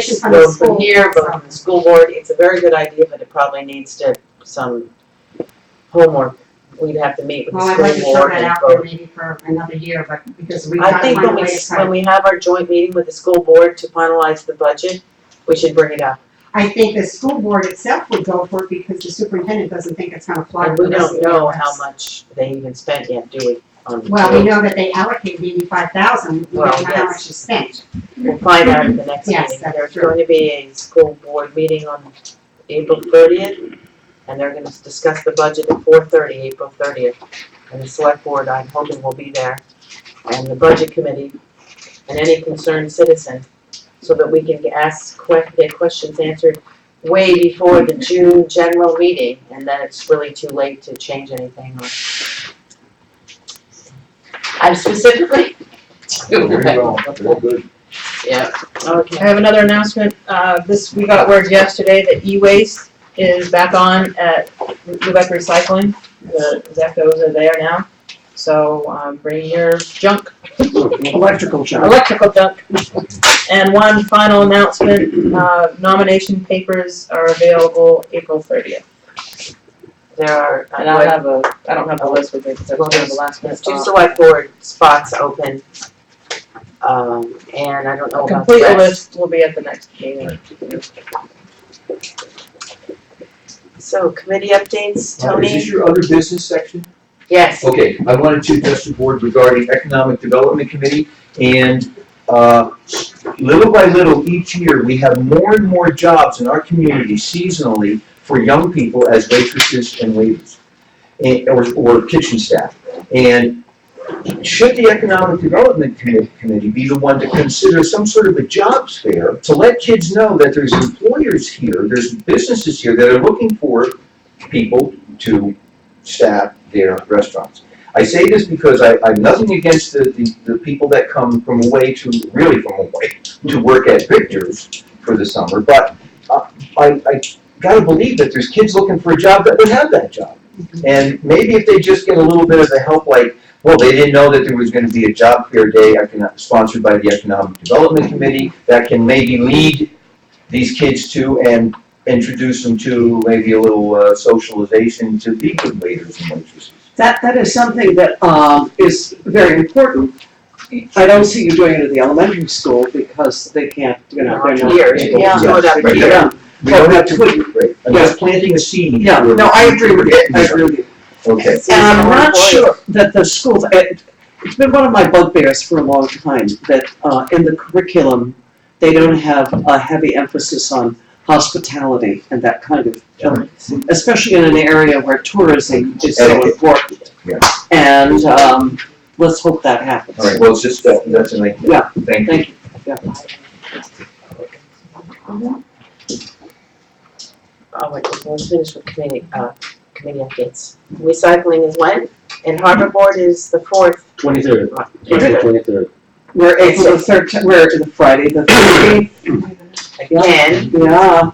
recommendations from the both school. from here, both from the school board, it's a very good idea, but it probably needs to, some homework. We'd have to meet with Well, the I'd like to school throw board that and out there vote. maybe for another year, but because we I have to think find a when we, way to s- try. when we have our joint meeting with the school board to finalize the budget, we should bring it up. I think the school board itself would go for it because the superintendent doesn't think it's gonna fly. And with we the rest don't of the know other how ones. much they even spent yet, do we? on the Well, we two? know that they allocated eighty-five thousand, we Well, don't know how yes. much is spent. We'll find out at the next Yes, meeting. that's There's true. going to be a school board meeting on April thirtieth, and they're gonna discuss the budget at four thirty, April thirtieth. And the select board, I'm hoping will be there, and the budget committee, and any concerned citizen, so that we can ask que- get questions answered way before the June general meeting, and then it's really too late to change anything or. I'm specifically Very well, very good. Yeah, I okay. have another announcement. Uh, this, we got word yesterday that e-waste is back on at Lubec Recycling. The Zechos are there now. So, um, bring your junk, Electrical job. electrical junk. And one final announcement, uh, nomination papers are available April thirtieth. There are, And I'll have a, uh, I don't have a list with me because I was doing the last minute. there's two select board spots open. Um, and I don't know A about the complete rest. list will be at the next meeting. So committee updates, Is Tony? this your Oh, other business section? Yes, Okay, I wanted to address the board regarding Economic Development Committee, and, uh, little by little, each year, we have more and more jobs in our community seasonally for young people as waitresses and waiters, and, or, or kitchen staff. And should the Economic Development Commi- Committee be the one to consider some sort of a jobs fair to let kids know that there's employers here, there's businesses here that are looking for people to staff their restaurants. I say this because I, I'm nothing against the, the, the people that come from away to, really from away, to work at Victor's for the summer, but uh, I, I gotta believe that there's kids looking for a job that would have that job. And maybe if they just get a little bit of the help, like, well, they didn't know that there was gonna be a job fair day econo- sponsored by the Economic Development Committee, that can maybe lead these kids to and introduce them to maybe a little uh, socialization to be good waiters and waitresses. That, that is something that, um, is very important. I don't see you doing it at the elementary school because they can't, you know, they're not. Here, you Yeah. can do it up Right. here. Yeah, We don't have to do it, I'm just planting a seed. yeah, no, I agree with you, I agree with you. Okay. And Um, I'm not Employer. sure that the schools, it, it's been one of my bugbears for a long time, that, uh, in the curriculum, they don't have a heavy emphasis on hospitality and that kind of thing, especially in an area where tourism is so Etiquette. important. Yeah. And, um, let's hope that happens. All right, well, it's just, that- that's an idea. Yeah. Thank you. Thank you. Oh, wait, let's finish with committee, uh, committee updates. Recycling is when, and harbor board is the fourth. Twenty-third, April Again, twenty-third. We're April the thirteenth, we're the Friday the thirteenth, yeah.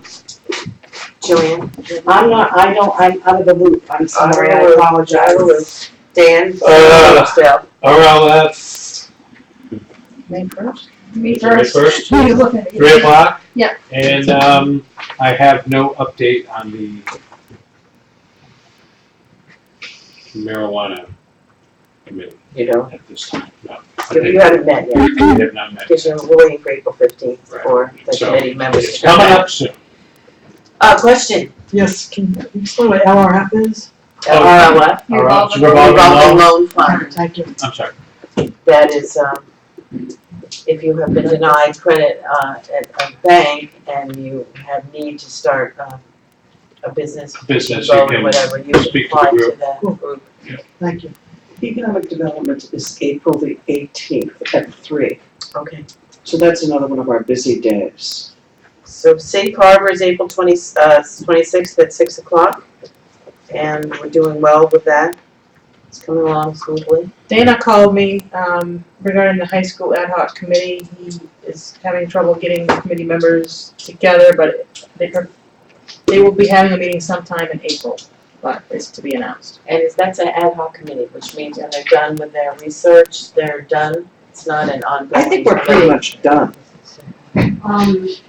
Jillian. I'm not, I don't, I'm out of the loop, I'm sorry, I Oh. apologize. Dan. Uh. Still. RLF, May first? May first, Who are you looking at? three o'clock. Yeah. And, um, I have no update on the marijuana committee You know, at this time, no. you haven't met yet, We have not met. because you're waiting for April fifteenth Right. for the So, committee members It's to come coming back. up soon. Uh, question, Yes, can you explain what LRF is? Oh. RLF, Revolving revolving loan. loan fund. I'm sorry. that is, um, if you have been denied credit, uh, at a bank and you have need to start, um, a business, Business, you loan or can whatever, you can speak to the apply to group. that group. Thank you. Economic Development is April the eighteenth at three, Okay, so that's another one of our busy days. so Safe Harbor is April twenty, uh, twenty-sixth at six o'clock, and we're doing well with that. It's coming along smoothly. Dana called me um, regarding the high school ad hoc committee. He is having trouble getting the committee members together, but they, are- they will be having a meeting sometime in April, but it's to be announced. And it's, that's an ad hoc committee, which means when they're done with their research, they're done, it's not an ongoing I think we're pretty much done. much. Um,